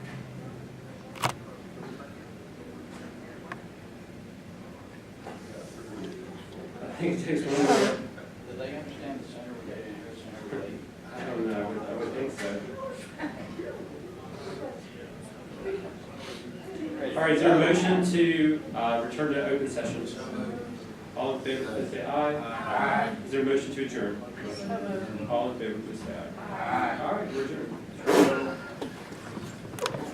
think it takes one more. Do they understand the center related, your center related? I don't know, I would- I would think so. All right, is there a motion to uh, return to open session? All in favor, please say aye. Aye. Is there a motion to adjourn? All in favor, please say aye. Aye. All right, we're adjourned.